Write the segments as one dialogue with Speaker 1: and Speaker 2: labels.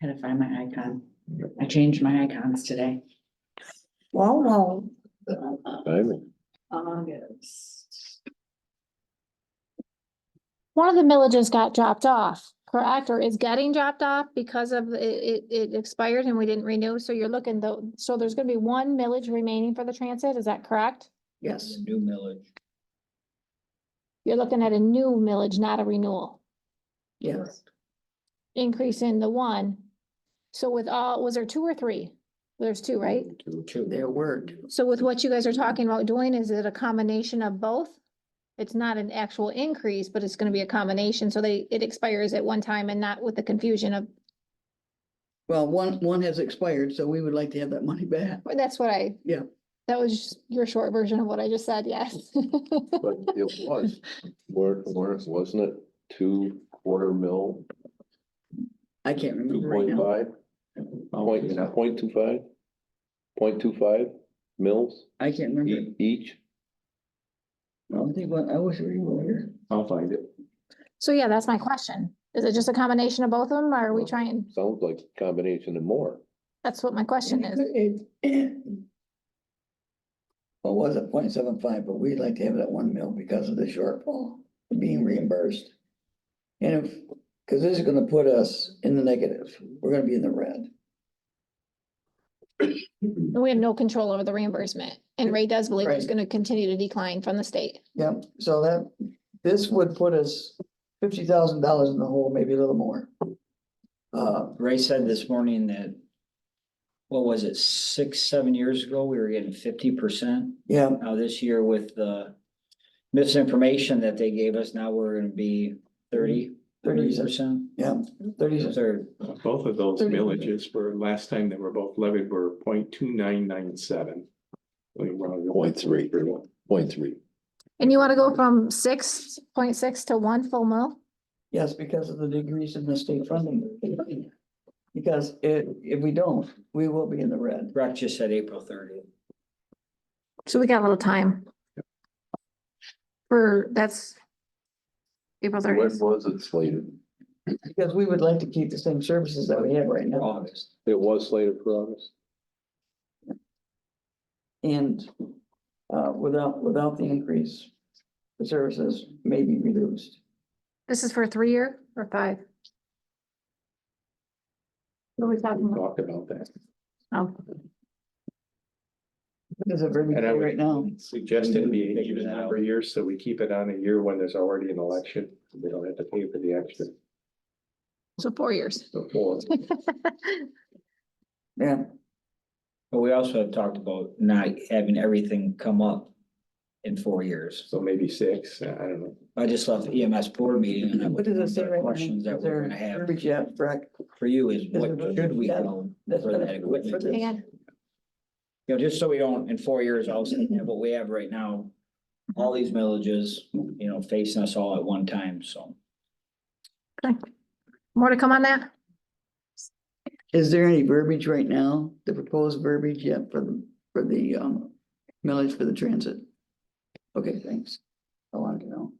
Speaker 1: Had to find my icon. I changed my icons today.
Speaker 2: Wow, wow.
Speaker 3: Timing.
Speaker 1: August.
Speaker 4: One of the millages got dropped off, correct, or is getting dropped off because of it, it, it expired and we didn't renew, so you're looking though, so there's gonna be one millage remaining for the transit, is that correct?
Speaker 2: Yes.
Speaker 5: New millage.
Speaker 4: You're looking at a new millage, not a renewal,
Speaker 2: Yes.
Speaker 4: increase in the one. So with all, was there two or three? There's two, right?
Speaker 2: Their word.
Speaker 4: So with what you guys are talking about doing, is it a combination of both? It's not an actual increase, but it's gonna be a combination, so they, it expires at one time and not with the confusion of,
Speaker 2: Well, one, one has expired, so we would like to have that money back.
Speaker 4: Well, that's what I.
Speaker 2: Yeah.
Speaker 4: That was just your short version of what I just said, yes.
Speaker 3: But it was, where, where, wasn't it two quarter mil,
Speaker 2: I can't
Speaker 3: two
Speaker 2: remember right
Speaker 3: point
Speaker 2: now.
Speaker 3: five? Point, point two five? Point two five mils
Speaker 2: I can't
Speaker 3: e-
Speaker 2: remember.
Speaker 3: each?
Speaker 2: No, I think, what- I wish we were here.
Speaker 5: I'll find it.
Speaker 4: So yeah, that's my question. Is it just a combination of both of them, or are we
Speaker 3: Well-
Speaker 4: trying,
Speaker 3: Sounds like a combination and more.
Speaker 4: that's what my question is.
Speaker 2: What was it, point seven five, but we'd like to have it at one mil because of the shortfall being reimbursed. And if, because this is gonna put us in the negative, we're gonna be in the red.
Speaker 4: And we have no control over the reimbursement, and Ray does believe it's
Speaker 2: Right.
Speaker 4: gonna continue to decline from the state.
Speaker 2: Yep, so that, this would put us fifty thousand dollars in the hole, maybe a little more. Uh,
Speaker 5: Ray said this morning that, what was it, six, seven years ago, we were getting fifty percent.
Speaker 2: yeah,
Speaker 5: Now this year with the misinformation that they gave us, now we're gonna be thirty, thirty
Speaker 2: thirty,
Speaker 5: percent.
Speaker 2: yeah, thirty,
Speaker 5: Third,
Speaker 6: Both of those
Speaker 2: Thirty.
Speaker 6: villages were, last time they were both levied were point two nine nine seven.
Speaker 3: Point three. Point three.
Speaker 4: And you wanna go from six point six to one full mil?
Speaker 2: yes, because of the decrease in the state funding. Because if, if we don't, we will be in the red.
Speaker 5: Brock just said April thirtieth.
Speaker 4: So we got a little time. For, that's. April
Speaker 3: When
Speaker 4: thirtieth.
Speaker 3: was it slated?
Speaker 2: Because we would like to keep the same services that we have right now.
Speaker 5: August.
Speaker 3: It was slated for August.
Speaker 2: And, uh, without, without the increase, the services may be reduced.
Speaker 4: This is for three year or five? What are we talking
Speaker 6: We
Speaker 4: about?
Speaker 6: talked about that.
Speaker 4: Oh.
Speaker 2: Because of everything
Speaker 6: And I would-
Speaker 2: right now.
Speaker 6: Suggest it be an
Speaker 5: Figure
Speaker 6: even
Speaker 5: that
Speaker 6: number of years, so we keep it on a year when there's already an election. They don't have to pay for the extra
Speaker 4: So four years.
Speaker 6: before.
Speaker 2: Yeah,
Speaker 5: But we also have talked about not having everything come up in four years.
Speaker 6: So maybe six, I don't know.
Speaker 5: I just left the EMS board meeting and that
Speaker 2: what
Speaker 5: was
Speaker 2: does
Speaker 5: one
Speaker 2: it
Speaker 5: of
Speaker 2: say
Speaker 5: the
Speaker 2: right now?
Speaker 5: questions that
Speaker 2: Is there
Speaker 5: we're gonna have
Speaker 2: verbiage yet, Brack?
Speaker 5: for you is
Speaker 2: Is
Speaker 5: what
Speaker 2: there verbiage
Speaker 5: should we
Speaker 2: yet?
Speaker 5: go?
Speaker 2: That's
Speaker 5: for
Speaker 2: better
Speaker 5: that
Speaker 2: for what- for
Speaker 5: equipment?
Speaker 2: this.
Speaker 4: And
Speaker 5: You know, just so we don't, in four years, all of a sudden, have what we have right now, all these villages, you know, facing us all at one time, so.
Speaker 4: more to come on that?
Speaker 2: Is there any verbiage right now, the proposed verbiage yet for the, for the, um, millage for the transit? Okay, thanks. I wanted to know.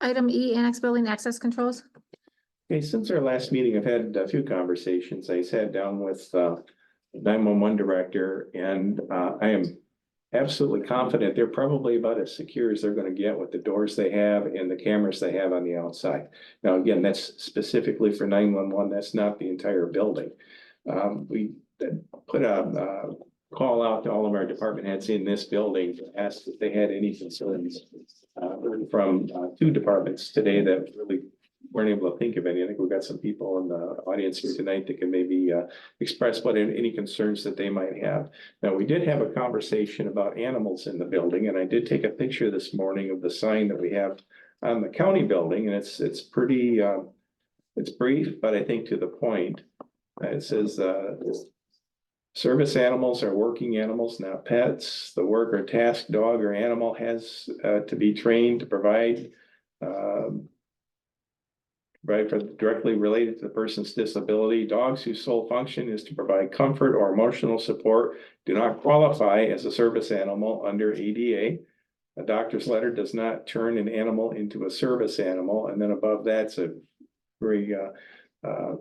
Speaker 4: Item E, annex building access controls.
Speaker 6: Okay, since our last meeting, I've had a few conversations. I sat down with uh, nine one one director and uh, I am absolutely confident they're probably about as secure as they're gonna get with the doors they have and the cameras they have on the outside. Now, again, that's specifically for nine one one. That's not the entire building. Um, We put a uh, call out to all of our department heads in this building, to ask if they had any concerns uh, from uh, two departments today that really weren't able to think of any. I think we've got some people in the audience here tonight that can maybe uh, express what any concerns that they might have. Now, we did have a conversation about animals in the building, and I did take a picture this morning of the sign that we have on the county building, and it's, it's pretty, um, it's brief, but I think to the point. Uh, It says, uh, Service animals are working animals, not pets. The work or task dog or animal has uh, to be trained to provide um, Right, for directly related to the person's disability, dogs whose sole function is to provide comfort or emotional support do not qualify as a service animal under ADA. A doctor's letter does not turn an animal into a service animal, and then above that's a very uh, uh,